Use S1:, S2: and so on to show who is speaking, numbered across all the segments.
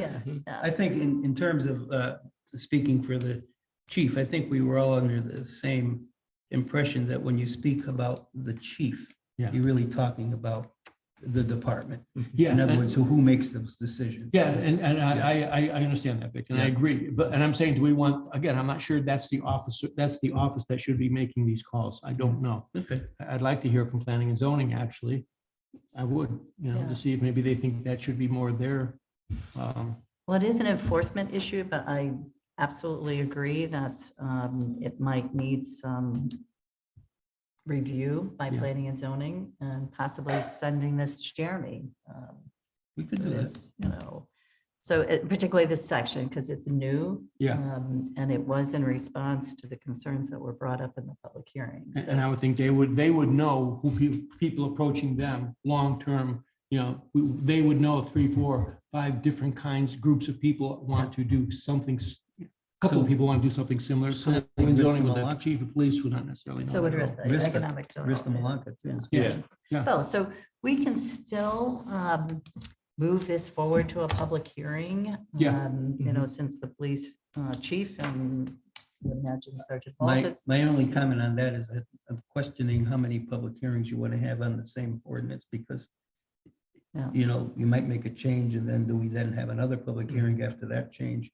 S1: yeah.
S2: I think in, in terms of, uh, speaking for the chief, I think we were all under the same impression that when you speak about the chief,
S3: Yeah.
S2: you're really talking about the department.
S3: Yeah.
S2: In other
S3: and-
S2: words, who, who makes those decisions?
S3: Yeah, and, and I, I, I- I understand that, Vic, and I
S2: Yeah.
S3: agree, but, and I'm saying, do we want, again, I'm not sure that's the officer, that's the office that should be making these calls. I don't know.
S2: Mm. Okay.
S3: I- I'd like to hear from planning and zoning, actually. I would, you know,
S1: Yeah.
S3: to see if maybe they think that should be more their, um,
S1: Well, it is an enforcement issue, but I absolutely agree that um, it might need some review by
S3: Yeah.
S1: planning and zoning and possibly sending this to Jeremy. um,
S2: We could do this.
S1: this, You know, so it- particularly this section, because it's new.
S3: Yeah.
S1: um, And it was in response to the concerns that were brought up in the public hearings.
S3: And and I would think they would, they would know who people, people approaching them, long-term, you know, we- they would know three, four, five different kinds, groups of people want to do something. s- a Couple of
S2: So-
S3: people want to do something similar.
S2: So
S3: Planning and
S2: risk
S3: zoning
S2: them
S3: would
S2: a
S3: not-
S2: lot.
S3: Chief of police would not necessarily know.
S1: So
S3: that.
S1: address the
S2: risk the-
S1: economic.
S2: Risk the
S1: development.
S2: Malacca too.
S3: Yeah, yeah.
S1: Oh, so we can still um, move this forward to a public hearing.
S3: Yeah. Mm-hmm.
S1: um, You know, since the police uh, chief and I would imagine Sergeant Paul
S2: My,
S1: has-
S2: my only comment on that is that I'm questioning how many public hearings you want to have on the same ordinance because
S1: Yeah.
S2: you know, you might make a change and then do we then have another public hearing after that change?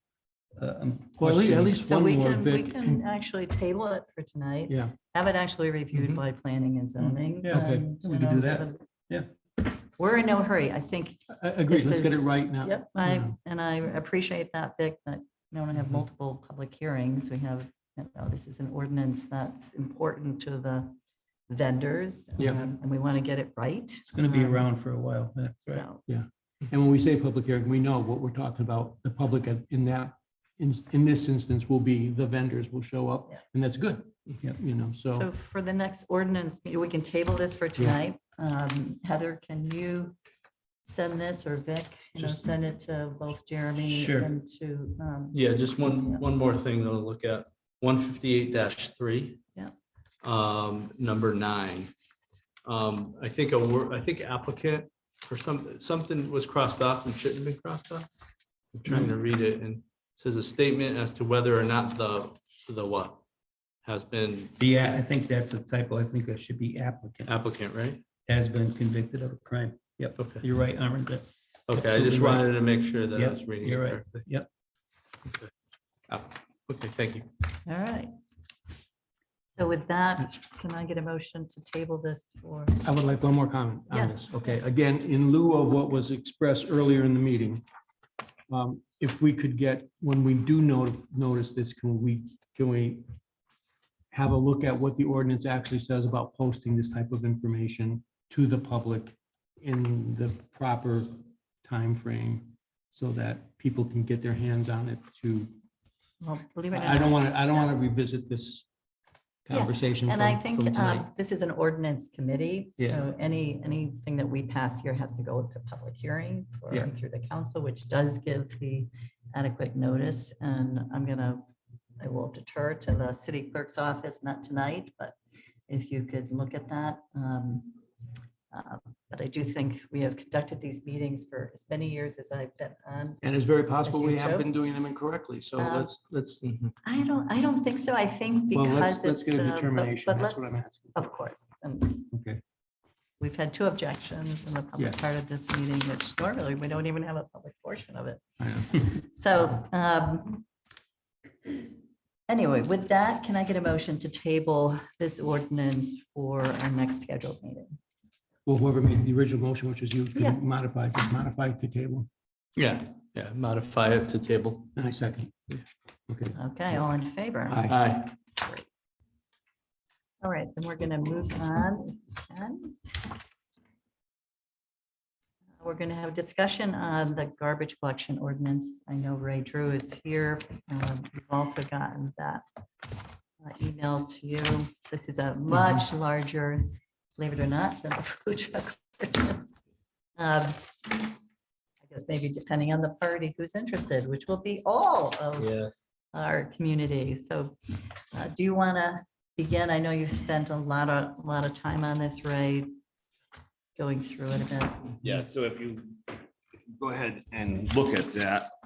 S2: Uh, I'm
S3: Mm-hmm. Well, at least- at
S2: questioning-
S3: least
S1: So
S3: one
S1: we
S3: more,
S1: can, we
S3: Vic.
S1: can actually table it for tonight.
S3: Yeah,
S1: Have it actually reviewed
S3: Mhm.
S1: by planning and zoning. um,
S2: Yeah,
S3: okay.
S1: and,
S2: We
S1: you
S2: can do
S1: know,
S2: that.
S1: sort of-
S2: Yeah.
S1: We're in no hurry. I think.
S3: I- I agree.
S1: this
S3: Let's get it
S1: is-
S3: right now.
S1: Yep, I,
S3: Yeah.
S1: and I appreciate that, Vic, that we don't have
S3: Mhm.
S1: multiple public hearings. We have, you know, this is an ordinance that's important to the vendors.
S3: Yeah.
S1: um, And we want to get it right. Um,
S2: It's going to be around for a while. That's right.
S1: So,
S3: And when we say public hearing, we know what we're talking about. The public at- in that, in, in this instance will be, the vendors will show up
S1: Yeah.
S3: and that's good.
S2: Yeah.
S3: You know,
S1: so for the next ordinance, meeting, we can table this for tonight. Um, Heather, can you send this or Vic, you know,
S4: Just-
S1: send it to both Jeremy
S2: Sure.
S1: and to, um,
S4: Yeah, just
S1: Yeah.
S4: one, one more thing to look at, one fifty-eight three.
S1: Yeah.
S4: Um, number nine. Um, I think a word, I think applicant or some, something was crossed off and shouldn't have been crossed off. I'm trying to read it and it says a statement as to whether or not the, the what has been
S2: Yeah, I think that's a typo. I think it should be applicant
S4: applicant, right?
S2: has been convicted of a crime. Yep,
S4: Okay,
S2: you're right, Armin. but
S4: okay, I
S2: Absolutely
S4: just
S2: right.
S4: wanted to make sure that I
S2: Yep,
S4: was reading it
S2: you're right.
S4: correctly.
S2: Yep.
S4: Okay. App- Okay, thank you.
S1: all right. So with that, can I get a motion to table this for?
S3: I would like one more comment. on this.
S1: Yes,
S3: Um, Okay,
S1: yes.
S3: again, in lieu of what was expressed earlier in the meeting, um, if we could get, when we do note- notice this, can we, can we have a look at what the ordinance actually says about posting this type of information to the public in the proper time frame, so that people can get their hands on it to,
S1: Well, believe it or
S3: I I
S1: not,
S3: don't want to, I don't want to revisit this
S1: Yeah,
S3: conversation.
S1: And I
S3: from-
S1: think
S3: from tonight.
S1: um, this is an ordinance committee,
S3: Yeah.
S1: so any, anything that we pass here has to go to public hearing for,
S3: Yeah.
S1: through the council, which does give the adequate notice. And I'm gonna, I will defer to the city clerk's office, not tonight, but if you could look at that. um, uh, But I do think we have conducted these meetings for as many years as I've been on.
S3: And it's very possible we have
S1: Joe?
S3: been doing them incorrectly, so
S1: Um,
S3: let's, let's, mm-hmm.
S1: I don't, I don't think so. I think
S3: well,
S1: because
S3: let's,
S1: it's,
S3: let's get
S1: uh,
S3: a
S1: but-
S3: determination,
S1: but
S3: that's what I'm
S1: let's-
S3: asking.
S1: Of course. and
S3: Okay.
S1: We've had two objections in the public part of this meeting, which normally we don't even have a public portion of it.
S3: I know.
S1: So um, anyway, with that, can I get a motion to table this ordinance for our next scheduled meeting?
S3: Well, whoever made the original motion, which was you,
S1: Yeah.
S3: can modify, just modify the table,
S4: Yeah, yeah, modify it to table.
S3: and I second. Okay,
S1: Okay, all in favor?
S3: aye.
S4: Aye.
S1: All right, then we're going to move on. if we can. We're going to have a discussion on the garbage collection ordinance. I know Ray Drew is here. Um, We've also gotten that uh, email to you. This is a much larger, believe it or not, than the food truck. ordinance. Um, I guess maybe depending on the party who's interested, which will be all of
S4: Yeah.
S1: our community. So uh, do you want to begin? I know you've spent a lot of, a lot of time on this, Ray, going through it a bit.
S5: Yeah, so if you if you go ahead and look at that,